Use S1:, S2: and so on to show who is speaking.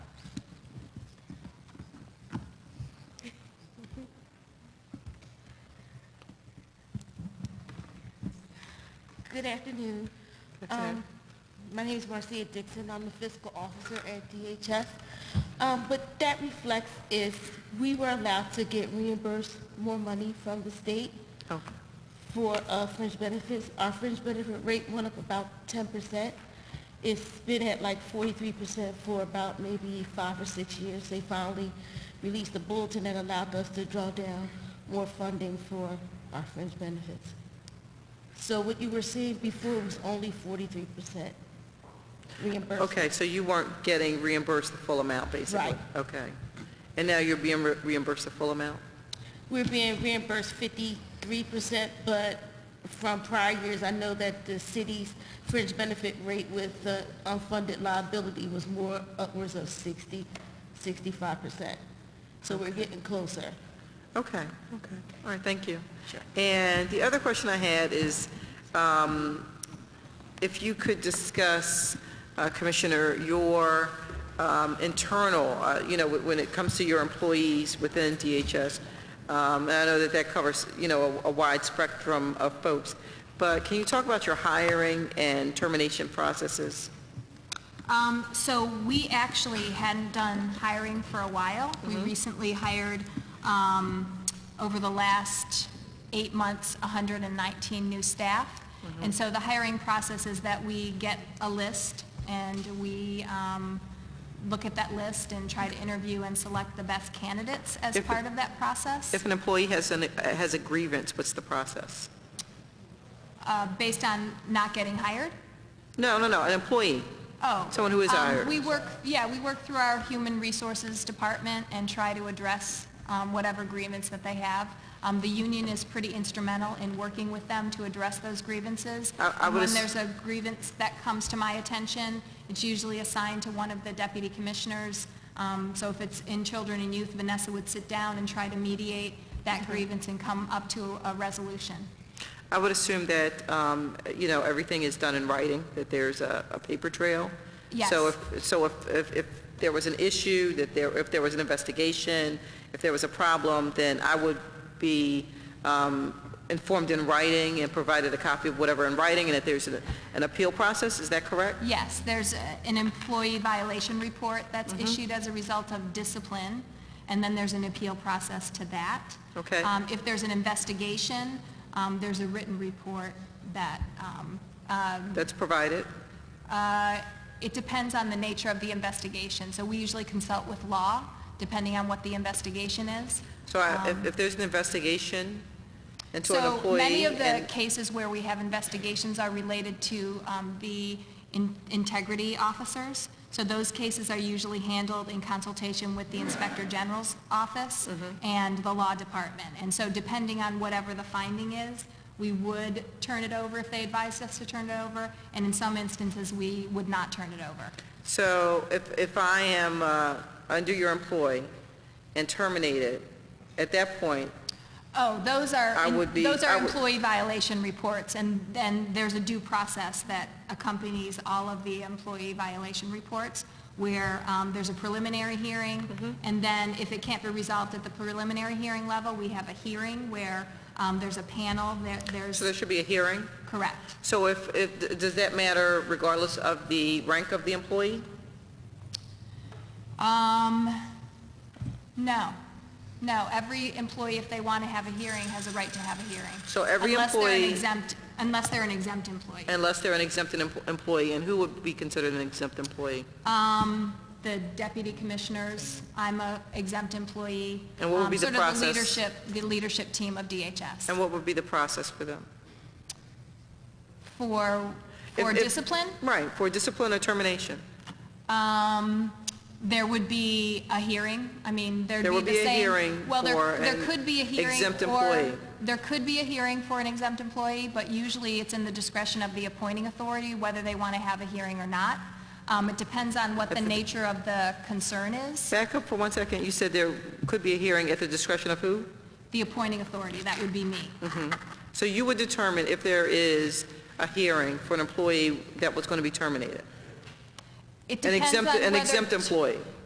S1: Good afternoon.
S2: Good afternoon.
S1: Um, My name is Marcia Dixon. I'm a fiscal officer at DHS. Um, What that reflects is we were allowed to get reimbursed more money from the state
S2: Oh,
S1: for uh, fringe benefits. Our fringe benefit rate went up about 10%. It's been at like 43% for about maybe five or six years. They finally released a bulletin that allowed us to draw down more funding for our fringe benefits. So what you were seeing before was only 43% reimbursement.
S2: okay, so you weren't getting reimbursed the full amount, basically?
S1: Right.
S2: Okay. And now you're being re- reimbursed the full amount?
S1: We're being reimbursed fifty-three percent, but from prior years, I know that the city's fringe benefit rate with the unfunded liability was more upwards of 60, 65 percent. So we're getting closer.
S2: Okay, okay. All right, thank you.
S1: Sure.
S2: And the other question I had is, um, if you could discuss, uh, Commissioner, your um, internal, uh, you know, wh- when it comes to your employees within DHS, um, and I know that that covers, you know, a a wide spectrum of folks, but can you talk about your hiring and termination processes?
S3: Um, So we actually hadn't done hiring for a while. We
S2: Mm-hmm.
S3: recently hired, um, over the last eight months, 119 new staff.
S2: Mm-hmm.
S3: And so the hiring process is that we get a list and we um, look at that list and try to interview and select the best candidates as
S2: If-
S3: part of that process.
S2: If an employee has an, has a grievance, what's the process?
S3: uh, Based on not getting hired?
S2: No, no, no, an employee.
S3: Oh.
S2: Someone who is
S3: um,
S2: hired.
S3: We work, yeah, we work through our Human Resources Department and try to address um, whatever grievance that they have. Um, The union is pretty instrumental in working with them to address those grievances.
S2: I- I would
S3: And When
S2: ass-
S3: there's a grievance that comes to my attention, it's usually assigned to one of the deputy commissioners. Um, So if it's in children and youth, Vanessa would sit down and try to mediate that grievance and come up to a resolution.
S2: I would assume that, um, you know, everything is done in writing, that there's a, a paper trail.
S3: Yes.
S2: So if, so if, if, if there was an issue, that there, if there was an investigation, if there was a problem, then I would be um, informed in writing and provided a copy of whatever in writing, and if there's an an appeal process, is that correct?
S3: Yes, there's a- an employee violation report that's issued as a result of discipline, and then there's an appeal process to that.
S2: Okay.
S3: Um, If there's an investigation, um, there's a written report that, um, um,
S2: That's provided?
S3: uh, it depends on the nature of the investigation. So we usually consult with law, depending on what the investigation is.
S2: So I- if, if there's an investigation into an
S3: Um, So
S2: employee...
S3: many of the
S2: and-
S3: cases where we have investigations are related to um, the in- integrity officers. So those cases are usually handled in consultation with the Inspector General's office
S2: Mm-hmm.
S3: and the Law Department. And so depending on whatever the finding is, we would turn it over if they advised us to turn it over, and in some instances, we would not turn it over.
S2: So if, if I am uh, under your employ and terminated, at that point,
S3: Oh, those are,
S2: I would be-
S3: those
S2: I
S3: are
S2: would-
S3: employee violation reports, and then there's a due process that accompanies all of the employee violation reports, where um, there's a preliminary hearing,
S2: Mm-hmm.
S3: and then if it can't be resolved at the preliminary hearing level, we have a hearing where um, there's a panel, there-
S2: so
S3: there's,
S2: there should be a hearing?
S3: correct.
S2: So if, if, does that matter regardless of the rank of the employee?
S3: Um, no, no, every employee, if they want to have a hearing, has a right to have a hearing.
S2: So every
S3: Unless they're an
S2: employee-
S3: exempt, unless they're an exempt employee.
S2: Unless they're an exempt em- employee, and who would be considered an exempt employee?
S3: Um, the deputy commissioners, I'm a exempt employee.
S2: And what would
S3: Um,
S2: be the process?
S3: Sort of the leadership, the leadership team of DHS.
S2: And what would be the process for them?
S3: For, for
S2: If- if-
S3: discipline,
S2: Right, for discipline or termination.
S3: um, there would be a hearing. I mean, there'd
S2: There
S3: be the
S2: would
S3: same.
S2: be a hearing
S3: Well,
S2: for
S3: there, there
S2: an
S3: could be a hearing.
S2: exempt
S3: or-
S2: employee.
S3: There could be a hearing for an exempt employee, but usually it's in the discretion of the appointing authority whether they want to have a hearing or not. Um, it depends on what the nature of the concern is.
S2: Back up for one second, you said there could be a hearing at the discretion of who?
S3: The appointing authority, that would be me.
S2: So you would determine if there is a hearing for an employee that was going to be terminated?
S3: It
S2: An
S3: depends
S2: exempt,
S3: on
S2: an
S3: whether
S2: exempt
S3: t-
S2: employee?